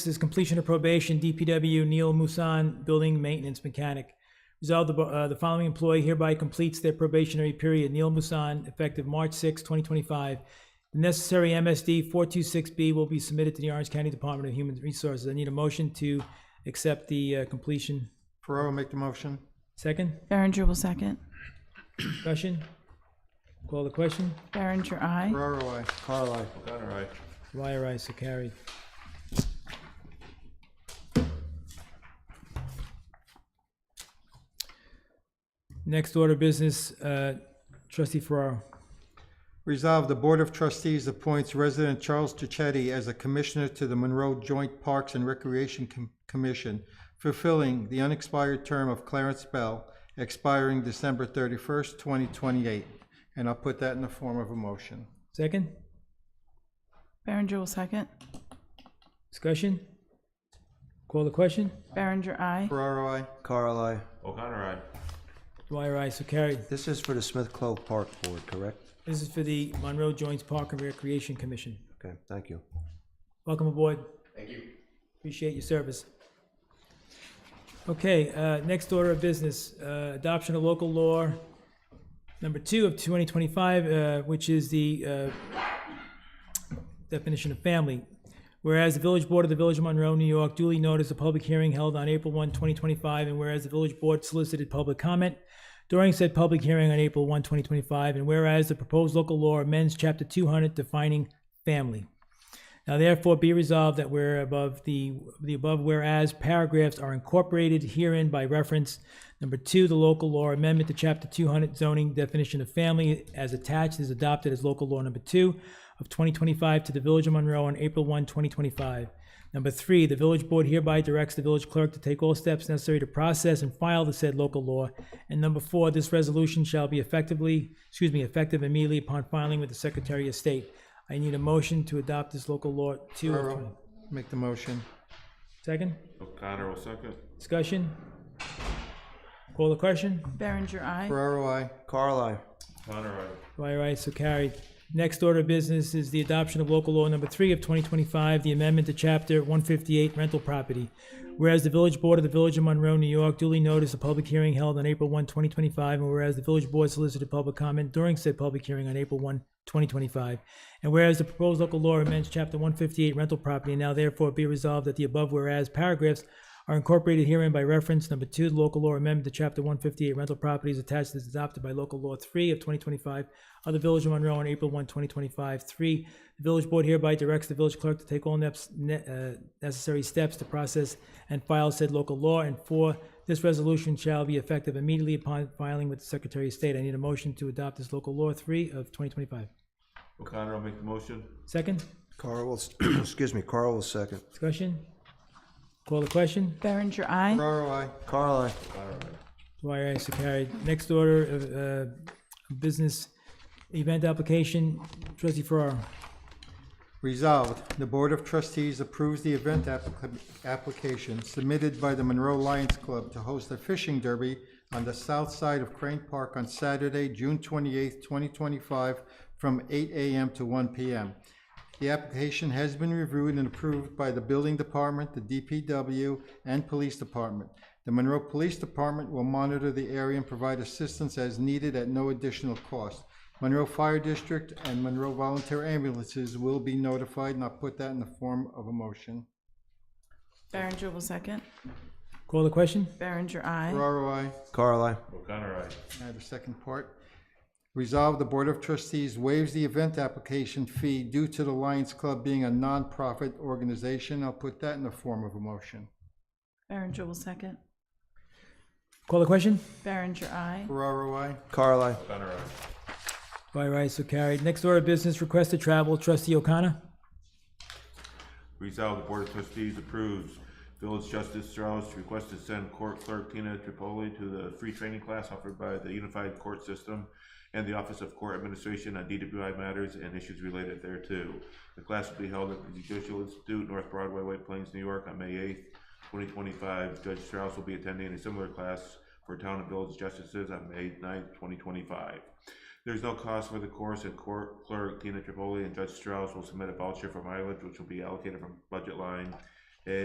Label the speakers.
Speaker 1: is completion of probation, DPW Neil Musan, building maintenance mechanic. Resolved, the, bo- uh, the following employee hereby completes their probationary period, Neil Musan, effective March 6, 2025. The necessary MSD 426B will be submitted to the Orange County Department of Human Resources. I need a motion to accept the uh, completion.
Speaker 2: Ferraro, make the motion.
Speaker 1: Second,
Speaker 3: Berenger will second.
Speaker 1: discussion? Call the question?
Speaker 3: Berenger, aye.
Speaker 2: Ferraro, I. Carl, I.
Speaker 1: Dwyer, aye, so carried. Next order of business, uh, trustee Ferraro.
Speaker 2: Resolve the Board of Trustees appoints resident Charles Tuchetti as a commissioner to the Monroe Joint Parks and Recreation Com- Commission, fulfilling the unexpired term of Clarence Bell, expiring December thirty-first, twenty twenty-eight. And I'll put that in the form of a motion.
Speaker 1: Second,
Speaker 3: Berenger will second.
Speaker 1: discussion? Call the question?
Speaker 3: Berenger, aye.
Speaker 2: Ferraro, I.
Speaker 4: Carl, I.
Speaker 5: O'Connor, aye.
Speaker 1: Dwyer, aye, so carried.
Speaker 4: This is for the Smith Clove Park Board, correct?
Speaker 1: This is for the Monroe Joints Park and Recreation Commission.
Speaker 4: Okay, thank you.
Speaker 1: Welcome aboard. Thank you. Appreciate your service. Okay, uh, next order of business, uh, adoption of local law number two of 2025, uh, which is the uh, definition of family. Whereas the Village Board of the Village of Monroe, New York duly noticed a public hearing held on April 1, 2025, and whereas the Village Board solicited public comment during said public hearing on April 1, 2025, and whereas the proposed local law amends Chapter 200 defining family. Now therefore be resolved that where above the, the above whereas paragraphs are incorporated herein by reference. Number two, the local law amendment to chapter two hundred zoning definition of family as attached is adopted as local law number two of twenty twenty-five to the Village of Monroe on April 1, 2025. Number three, the village board hereby directs the village clerk to take all steps necessary to process and file the said local law. And number four, this resolution shall be effectively, excuse me, effective immediately upon filing with the Secretary of State. I need a motion to adopt this local law two of twenty.
Speaker 2: Ferraro, make the motion.
Speaker 1: Second,
Speaker 5: O'Connor will second.
Speaker 1: discussion? Call the question?
Speaker 3: Berenger, aye.
Speaker 2: Ferraro, I.
Speaker 4: Carl, I.
Speaker 5: O'Connor, aye.
Speaker 1: Dwyer, aye, so carried. Next order of business is the adoption of local law number three of twenty twenty-five, the amendment to chapter one fifty-eight rental property. Whereas the village board of the village of Monroe, New York duly noticed a public hearing held on April 1, 2025, and whereas the village board solicited public comment during said public hearing on April 1, 2025. And whereas the proposed local law amends chapter one fifty-eight rental property, now therefore be resolved that the above whereas paragraphs are incorporated herein by reference. Number two, the local law amendment to chapter one fifty-eight rental properties attached is adopted by local law three of twenty twenty-five of the Village of Monroe on April 1, 2025. Three, the village board hereby directs the village clerk to take all neps- ne- uh, necessary steps to process and file said local law. And four, this resolution shall be effective immediately upon filing with the Secretary of State. I need a motion to adopt this local law three of twenty twenty-five.
Speaker 5: O'Connor will make the motion.
Speaker 1: Second,
Speaker 4: Carl will, excuse me, Carl will second.
Speaker 1: discussion? Call the question?
Speaker 3: Berenger, aye.
Speaker 2: Ferraro, I.
Speaker 4: Carl, I.
Speaker 1: Dwyer, aye, so carried. Next order of uh, business, event application, trustee Farrar.
Speaker 2: Resolved, the Board of Trustees approves the event applica- application submitted by the Monroe Lions Club to host a fishing derby on the south side of Crane Park on Saturday, June twenty-eighth, twenty twenty-five, from eight AM to one PM. The application has been reviewed and approved by the Building Department, the DPW, and Police Department. The Monroe Police Department will monitor the area and provide assistance as needed at no additional cost. Monroe Fire District and Monroe Volunteer Ambulances will be notified, and I'll put that in the form of a motion.
Speaker 3: Berenger will second.
Speaker 1: Call the question?
Speaker 3: Berenger, aye.
Speaker 2: Ferraro, I.
Speaker 4: Carl, I.
Speaker 5: O'Connor, aye.
Speaker 2: Now the second part. Resolve the Board of Trustees waives the event application fee due to the Lions Club being a nonprofit organization. I'll put that in the form of a motion.
Speaker 3: Berenger will second.
Speaker 1: Call the question?
Speaker 3: Berenger, aye.
Speaker 2: Ferraro, I.
Speaker 4: Carl, I.
Speaker 5: O'Connor, aye.
Speaker 1: Dwyer, aye, so carried. Next order of business, request to travel, trustee O'Connor.
Speaker 5: Resolved, the Board of Trustees approves Village Justice Strauss request to send Court Clerk Tina Tripoli to the free training class offered by the Unified Court System and the Office of Court Administration on DWI matters and issues related thereto. The class will be held at the Judicial Institute, North Broadway, White Plains, New York, on May eighth, twenty twenty-five. Judge Strauss will be attending a similar class for town and village justices on May 9th, twenty twenty-five. There's no cost for the course, and court clerk Tina Tripoli and Judge Strauss will submit a voucher for mileage, which will be allocated from budget line